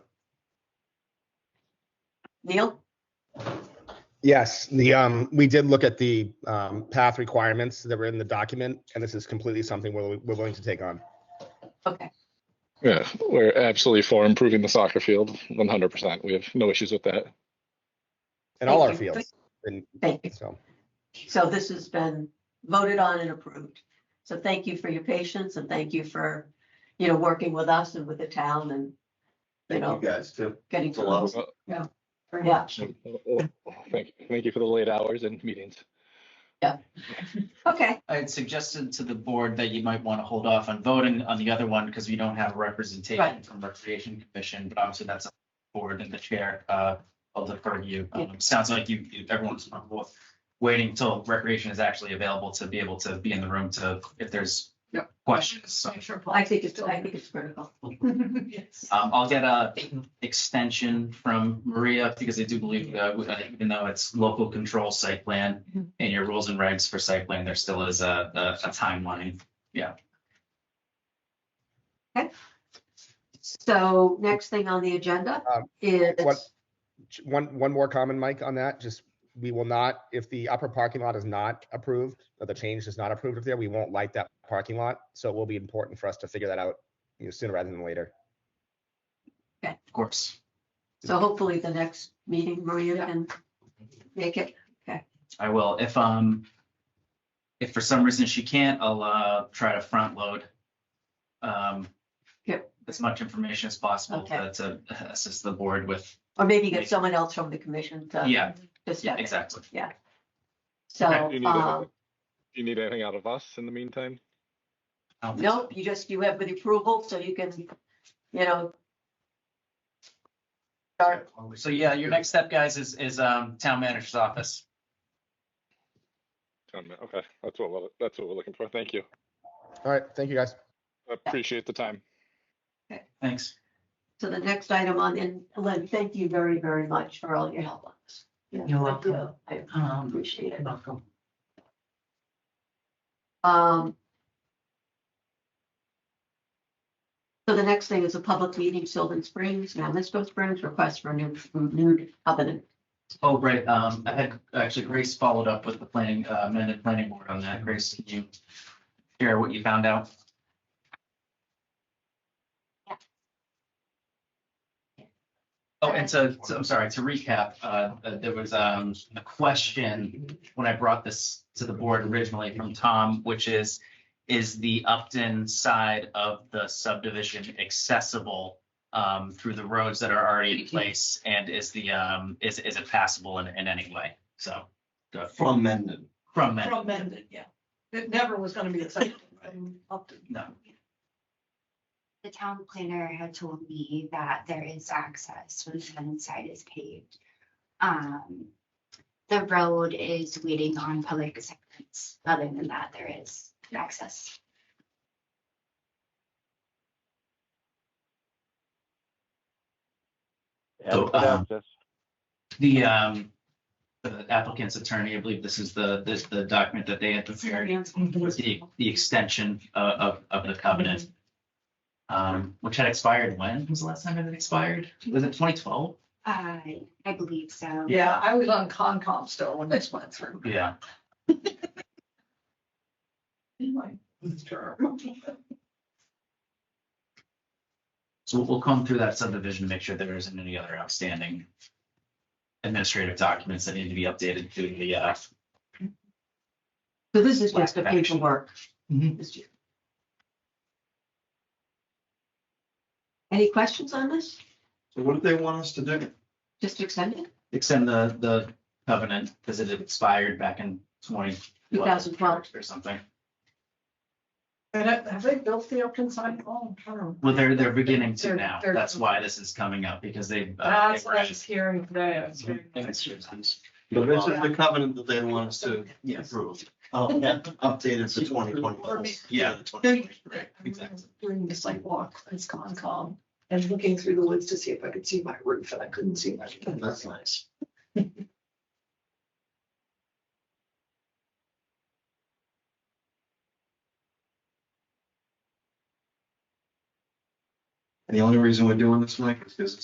Neil? Yes, the, um, we did look at the, um, path requirements that were in the document, and this is completely something we're, we're willing to take on. Okay, Yeah, we're absolutely for improving the soccer field, one hundred percent. We have no issues with that. In all our Thank you. fields, and thank you. so, So this has been voted on and approved. So thank you for your patience and thank you for, you know, working with us and with the town and, you Thank you know, guys too. getting It's a to lot. us. of work. Yeah, Thank, thank you for the late hours and meetings. okay. I had suggested to the board that you might want to hold off on voting on the other one because we don't have representation Right. from Recreation Commission, but obviously that's up to the board and the chair, uh, I'll defer to you. Um, Sounds like you, you- everyone's comfortable with waiting till Recreation is actually available to be able to be in the room to, if there's Yep. questions. So, Make sure Paul- I think it's, I think it's critical. Yes. um, I'll get a extension from Maria because I do believe, uh, we- uh, even though it's local control site plan Mhm. and your rules and regs for site plan, there still is a, a- a timeline So next thing on the agenda Um, is, what- j- one, one more comment, Mike, on that, just, we will not, if the upper parking lot is not approved, or the change is not approved up there, we won't light that parking lot, so it will be important for us to figure that out, you know, sooner rather than later. Of course. so hopefully the next meeting, Maria Yeah. can make it. I will. If, um, if for some reason she can't, I'll, uh, try to front load. Um, Yep. as much information as possible Okay. to, to assist the board with, Or maybe get someone else from the commission to. yeah, to yeah, step in. exactly. Okay. So, Do you need uh, anything- do you need anything out of us in the meantime? I don't think so. no, you just, you have the approval, so you can, you know. Start, So yeah, your next step, guys, is, is, um, town manager's office. Um, Okay, that's what, we're- that's what we're looking for. Thank you. All right, thank you, guys. Appreciate the time. Thanks. so the next item on, and Lynn, thank you very, very much for all your help on this. You're welcome. I Um, appreciate it. welcome. Um. So the next thing is a public meeting, Sylvan Springs, now Misco Springs, request for new, new covenant. Oh, right. Um, I had, actually Grace followed up with the planning, uh, amended planning board on that. Grace, can you share what you found out? Oh, and to, to- I'm sorry, to recap, uh, uh, there was, um, a question when I brought this to the board originally from Tom, which is, is the Upton side of the subdivision accessible, um, through the roads that are already in place? And is the, um, is, is it passable in, in any way? So, uh, From Mendon. from that, From Mendon, yeah. It never was gonna be accepted from Upton. no. The town planner had told me that there is access when the one side is paved. Um, the road is waiting on public acceptance. Other than that, there is access. So, um, The, um, the applicant's attorney, I believe this is the, this, the document that they had prepared, was the, the extension of, of, of the covenant. Um, which had expired when? Was the last time it expired? Was it twenty twelve? Uh, I believe so. Yeah, I was on Concom still when this went through. Yeah. In my term. So we'll- we'll come through that subdivision, to make sure there isn't any other outstanding administrative documents that need to be updated to the, uh, So this is just Lack the of action. paperwork. Mm-hmm. Mhm. This year. Any questions on this? So what do they want us to do? Just extend it, extend the, the covenant, because it had expired back in twenty. 2012. Or something. And I- have they built the Upton side? Oh, I don't know. Well, they're, they're beginning to They're- now. they're- That's why this is coming up because they. uh, That's they what I were- Mm-hmm. was hearing today. I was hearing- But this is the covenant that they want us to approve. Oh, yeah, updated to twenty twenty. Yeah. Right, exactly. During the site walk, as Concom, and looking through the woods to see if I could see my roof, and I couldn't see my. That's nice. And the only reason we're doing this, Mike, is because it's